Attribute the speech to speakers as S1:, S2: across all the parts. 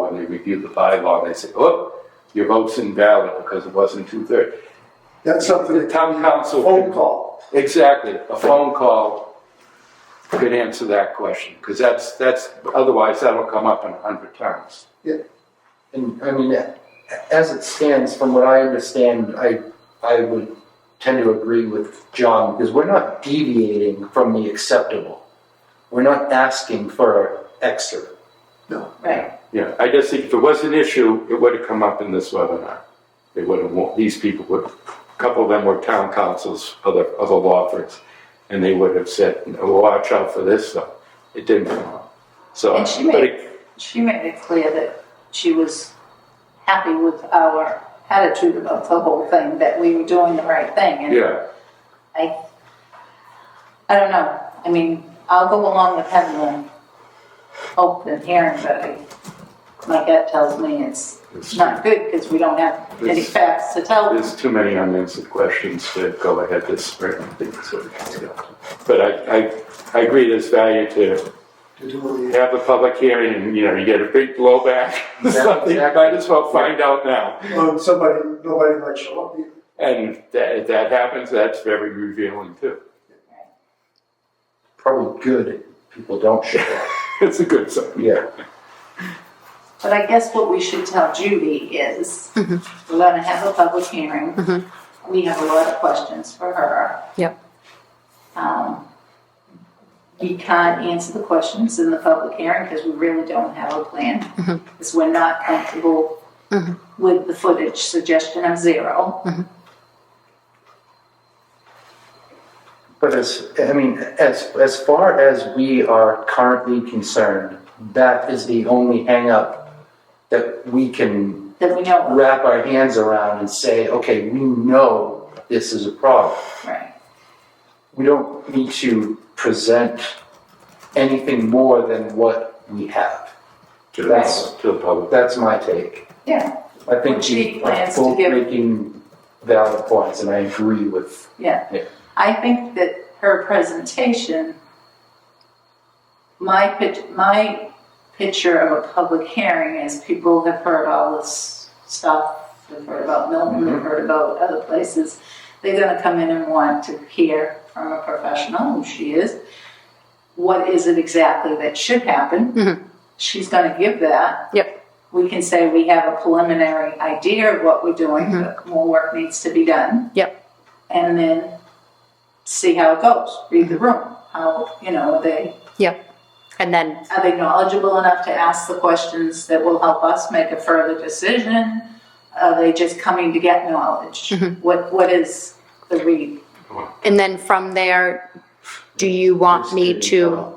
S1: bylaw, they reviewed the bylaw, and they said, oh, your vote's invalid because it wasn't two-thirds.
S2: That's something
S1: The
S2: that
S1: town council.
S2: phone
S1: could-
S2: call.
S1: Exactly, a phone call could answer that question, because that's, that's, otherwise that'll come up in a hundred times.
S3: And I mean, a- as it stands, from what I understand, I, I would tend to agree with John because we're not deviating from the acceptable. We're not asking for extra.
S4: Right.
S1: Yeah, I just think if it was an issue, it would have come up in this webinar. They would have, wa- these people would, a couple of them were town councils, other, other law firms, and they would have said, "No, watch out for this stuff. It didn't come up. So,
S4: And she
S1: but
S4: made-
S1: it-
S4: She made it clear that she was happy with our attitude about the whole thing, that we were doing the right thing. And
S1: yeah,
S4: I, I don't know. I mean, I'll go along with having the hope and hearing, but I, my gut tells me it's
S1: it's-
S4: not good because we don't have any
S1: It's-
S4: facts to tell.
S1: there's too many unanswered questions to go ahead this spring. I think so. But I, I, I agree there's value to
S2: To do
S1: have a public hearing and, you know, you get a big blowback. Something, you might as well find out now.
S2: it. Um, somebody, nobody might show up. either.
S1: And that, if that happens, that's very revealing too.
S3: Probably good if people don't show up.
S1: It's a good sign.
S3: Yeah.
S4: But I guess what we should tell Judy is, we're gonna have a public hearing. We have a lot of questions for her.
S5: Yep.
S4: Um, We can't answer the questions in the public hearing because we really don't have a plan. Because we're not comfortable with the footage suggestion of zero.
S3: But as, I mean, as, as far as we are currently concerned, that is the only hangup that we can
S4: That we know, of.
S3: wrap our hands around and say, okay, we know this is a problem.
S4: right?
S3: We don't need to present anything more than what we have.
S1: To
S3: That's-
S1: the, to the public.
S3: That's my take.
S4: Yeah,
S3: I think
S4: Which
S3: you
S4: he
S3: are
S4: plans to
S3: both
S4: give-
S3: making valid points, and I agree with
S4: yeah.
S3: Yeah.
S4: I think that her presentation, my pic, my picture of a public hearing is people have heard all this stuff. They've heard about Milton, they've heard about other places. They're gonna come in and want to hear from a professional, who she is. What is it exactly that should
S5: Mhm.
S4: happen? She's gonna give that.
S5: Yep.
S4: We can say we have a preliminary idea of what we're doing, but more work needs to be done.
S5: Mm-hmm. Yep.
S4: And then see how it goes, read the room, how, you know, are they,
S5: And then,
S4: are they knowledgeable enough to ask the questions that will help us make a further decision? Are they just coming to get knowledge?
S5: Mm-hmm.
S4: What, what is the read?
S5: and then from there, do you want me to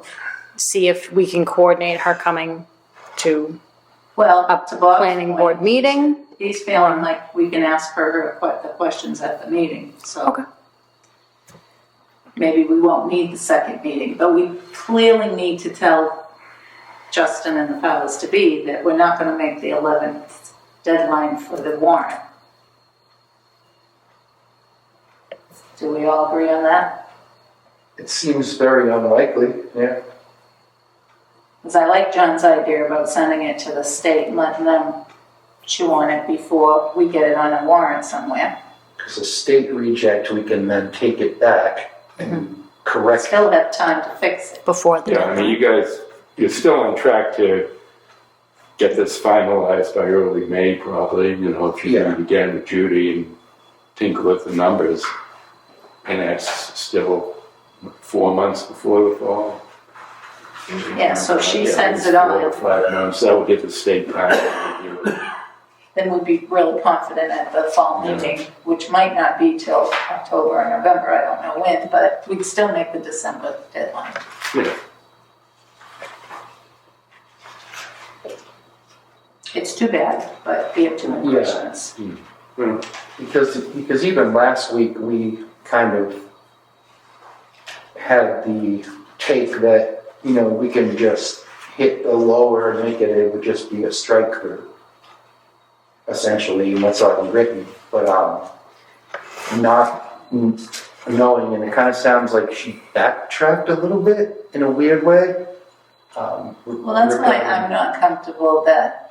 S5: see if we can coordinate her coming to
S4: Well,
S5: a
S4: to Bob's
S5: planning
S4: point,
S5: board meeting?
S4: He's feeling like we can ask her que- the questions at the meeting, so.
S5: Okay.
S4: Maybe we won't need the second meeting, but we clearly need to tell Justin and the powers to be that we're not gonna make the eleventh deadline for the warrant. Do we all agree on that?
S3: It seems very unlikely, yeah.
S4: Cause I like John's idea about sending it to the state and letting them chew on it before we get it on a warrant somewhere.
S3: Because a state reject, we can then take it back and correct.
S4: Mm-hmm. Still have time to fix it.
S5: Before the
S1: Yeah, I mean,
S5: deadline?
S1: you guys, you're still on track to get this finalized by early May probably, you know, if you do
S3: Yeah.
S1: it again with Judy and tinker with the numbers. And that's still four months before the fall.
S4: Yeah, so she
S1: Yeah,
S4: sends
S1: it's
S4: it
S1: Four or
S4: on,
S1: five months, that will give the state time to review it.
S4: then we'd be really confident at the fall
S1: Yeah.
S4: meeting, which might not be till October or November, I don't know when, but we'd still make the December deadline.
S1: Yeah.
S4: It's too bad, but we have too many
S3: Yeah.
S4: questions.
S1: Well,
S3: Because, because even last week, we kind of had the take that, you know, we can just hit the lower and make it, it would just be a strike through. Essentially, and that's already written, but, um, not mm, knowing, and it kind of sounds like she backtracked a little bit in a weird way. Um, Well,
S4: Well, that's why I'm not comfortable that